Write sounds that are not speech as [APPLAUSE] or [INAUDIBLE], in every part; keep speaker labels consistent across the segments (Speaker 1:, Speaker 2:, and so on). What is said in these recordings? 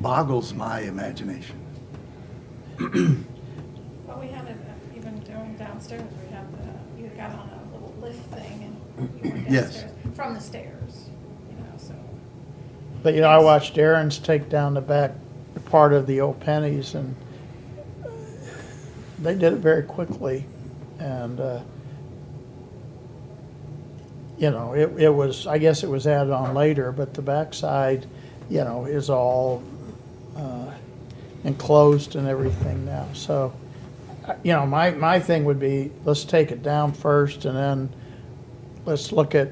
Speaker 1: boggles my imagination.
Speaker 2: Well, we haven't, uh, even doing downstairs, we have the, you got on a little lift thing and you went
Speaker 1: Yes.
Speaker 2: downstairs from the stairs, you know, so.
Speaker 3: But you know, I watched Aaron's take down the back part of the old pennies, and they did it very quickly, and uh, you know, it it was. I guess it was added on later, but the backside, you know, is all uh, enclosed and everything now. So, I- you know, my my thing would be let's take it down first, and then let's look at,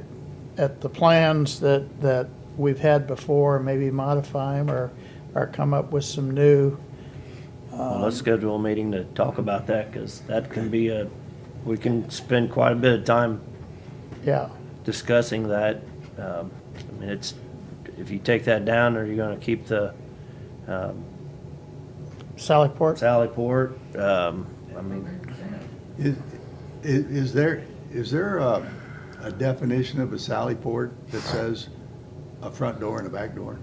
Speaker 3: at the plans that, that we've had before, and maybe modify them or, or come up with some new.
Speaker 4: Well, let's schedule a meeting to talk about that, because that can be a, we can spend quite a bit of time
Speaker 3: Yeah,
Speaker 4: discussing that. Um, I mean, it's, if you take that down, are you gonna keep the um,
Speaker 3: Sallyport,
Speaker 4: Sally Port? Um, I mean,
Speaker 1: Is, i- is there, is there a, a definition of a sally port that says a front door and a back door?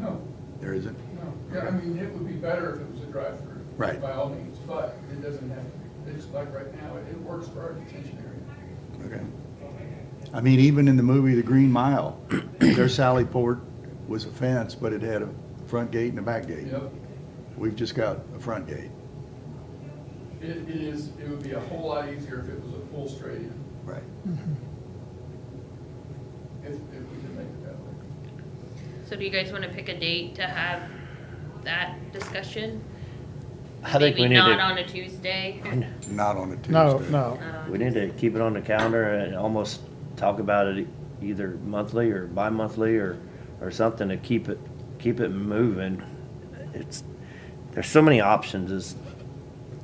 Speaker 5: No,
Speaker 1: There isn't?
Speaker 5: no. Yeah, I mean, it would be better if it was a drive-through.
Speaker 1: Right.
Speaker 5: By all means, but it doesn't have, to be. it's like right now, it, it works for our detention area.
Speaker 1: Okay. I mean, even in the movie The Green Mile, [COUGHS] their sally port was a fence, but it had a front gate and a back gate.
Speaker 5: Yep,
Speaker 1: We've just got a front gate.
Speaker 5: it, it is, it would be a whole lot easier if it was a full straight in,
Speaker 1: Right.
Speaker 5: if, if we could make it that way.
Speaker 6: So do you guys wanna pick a date to have that discussion?
Speaker 4: I think we
Speaker 6: Maybe
Speaker 4: need
Speaker 6: not
Speaker 4: to,
Speaker 6: on a Tuesday,
Speaker 1: Not on a Tuesday.
Speaker 3: no, no,
Speaker 6: not on-
Speaker 4: we need to keep it on the calendar and almost talk about it either monthly or bi-monthly or, or something to keep it, keep it moving. It's, there's so many options is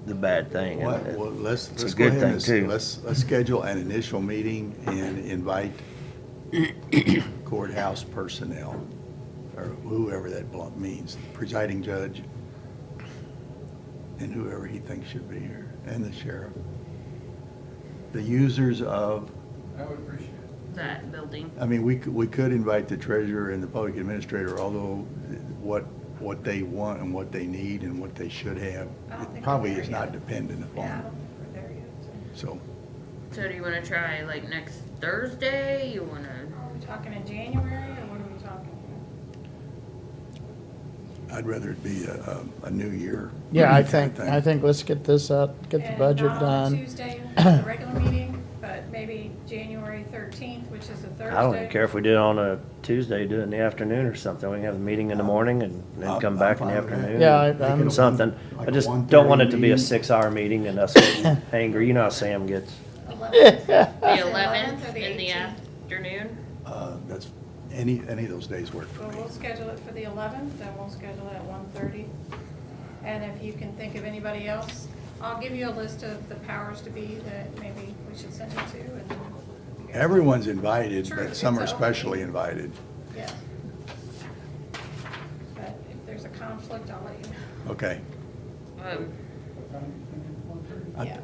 Speaker 4: the bad thing.
Speaker 1: Well, well, let's,
Speaker 4: It's a
Speaker 1: let's go
Speaker 4: good
Speaker 1: ahead
Speaker 4: thing,
Speaker 1: and,
Speaker 4: too.
Speaker 1: s- let's, let's schedule an initial meeting and
Speaker 4: [COUGHS]
Speaker 1: invite courthouse personnel, or whoever that blunt means, presiding judge, and whoever he thinks should be here, and the sheriff. The users of,
Speaker 5: I would appreciate it.
Speaker 6: that building.
Speaker 1: I mean, we could, we could invite the treasurer and the public administrator, although what, what they want and what they need and what they should have,
Speaker 2: I don't think we're
Speaker 1: it probably
Speaker 2: there
Speaker 1: is
Speaker 2: yet.
Speaker 1: not dependent
Speaker 2: Yeah, I
Speaker 1: upon,
Speaker 2: don't think we're there yet. so.
Speaker 1: so.
Speaker 6: So do you wanna try like next Thursday? You wanna,
Speaker 2: Are we talking in January or what are we talking?
Speaker 1: I'd rather it be a, a- a new year.
Speaker 3: yeah,
Speaker 1: kind
Speaker 3: I
Speaker 1: of
Speaker 3: think, I
Speaker 1: thing.
Speaker 3: think let's get this out, get the
Speaker 2: And
Speaker 3: budget
Speaker 2: Eh, not on a
Speaker 3: done.
Speaker 2: Tuesday, the regular meeting, but maybe January thirteenth, which is a Thursday.
Speaker 4: I don't even care if we do it on a Tuesday, do it in the afternoon or something. We can have a meeting in the morning and then
Speaker 1: I'm-
Speaker 4: come back
Speaker 1: I'm
Speaker 4: in the
Speaker 1: fine with that.
Speaker 4: afternoon.
Speaker 3: Yeah, I-
Speaker 4: and
Speaker 3: I'm-
Speaker 4: Something.
Speaker 1: Like
Speaker 4: I
Speaker 1: a
Speaker 4: just
Speaker 1: 1:30
Speaker 4: don't want it to be a
Speaker 1: meeting.
Speaker 4: six-hour meeting and us
Speaker 1: [LAUGHS]
Speaker 4: getting angry. You know how Sam gets.
Speaker 6: the
Speaker 2: the 11th or
Speaker 6: eleventh
Speaker 2: the
Speaker 6: in the
Speaker 2: 18th?
Speaker 6: afternoon?
Speaker 1: Uh, That's, any, any of those days work for
Speaker 2: Well,
Speaker 1: me.
Speaker 2: we'll schedule it for the eleventh, then we'll schedule it at one thirty. And if you can think of anybody else, I'll give you a list of the powers to be that maybe we should send it to and. you guys-
Speaker 1: Everyone's invited,
Speaker 2: Sure,
Speaker 1: but some are
Speaker 2: it's open.
Speaker 1: specially invited.
Speaker 2: Yeah. But if there's a conflict, I'll let you know.
Speaker 1: Okay.
Speaker 6: Um,
Speaker 5: What time are you thinking, one thirty?
Speaker 1: I-
Speaker 2: Yeah.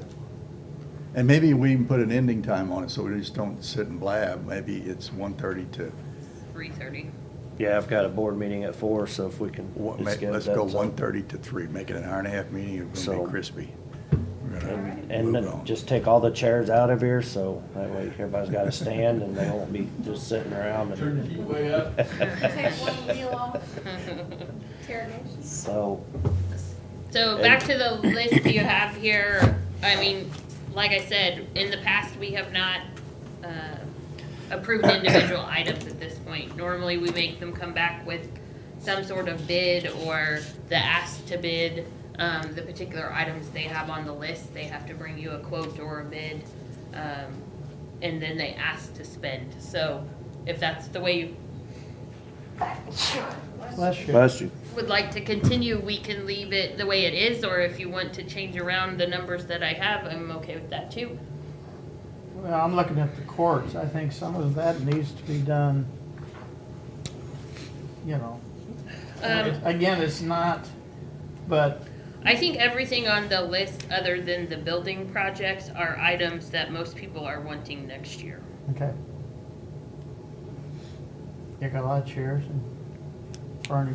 Speaker 1: And maybe we even put an ending time on it, so we just don't sit and blab. Maybe it's 1:30 to,
Speaker 6: three thirty.
Speaker 4: Yeah, I've got a board meeting at four, so if we can.
Speaker 1: what-
Speaker 4: just get
Speaker 1: let's
Speaker 4: that
Speaker 1: go
Speaker 4: done.
Speaker 1: 1:30 to 3, make it an hour and a half meeting, it's gonna
Speaker 4: So-
Speaker 1: be crispy. We're gonna
Speaker 4: And and
Speaker 1: move
Speaker 4: then
Speaker 1: on.
Speaker 4: just take all the chairs out of here, so that way everybody's got a stand and they won't be just sitting around. and-
Speaker 5: Turn the heat way up.
Speaker 2: Take one wheel off, interrogation.
Speaker 4: So,
Speaker 6: So back to the list you have here, I mean, like I said, in the past, we have not, uh, approved individual items at this point. Normally, we make them come back with some sort of bid or the ask to bid, um, the particular items they have on the list, they have to bring you a quote or a bid. Um, and then they ask to spend, so if that's the way you
Speaker 3: Bless you.
Speaker 4: bless you.
Speaker 6: would like to continue, we can leave it the way it is, or if you want to change around the numbers that I have, I'm okay with that too.
Speaker 3: Well, I'm looking at the courts, I think some of that needs to be done, you know.
Speaker 6: Um,
Speaker 3: Again, it's not, but
Speaker 6: I think everything on the list, other than the building projects, are items that most people are wanting next year.
Speaker 3: Okay. You got a lot of chairs and furniture.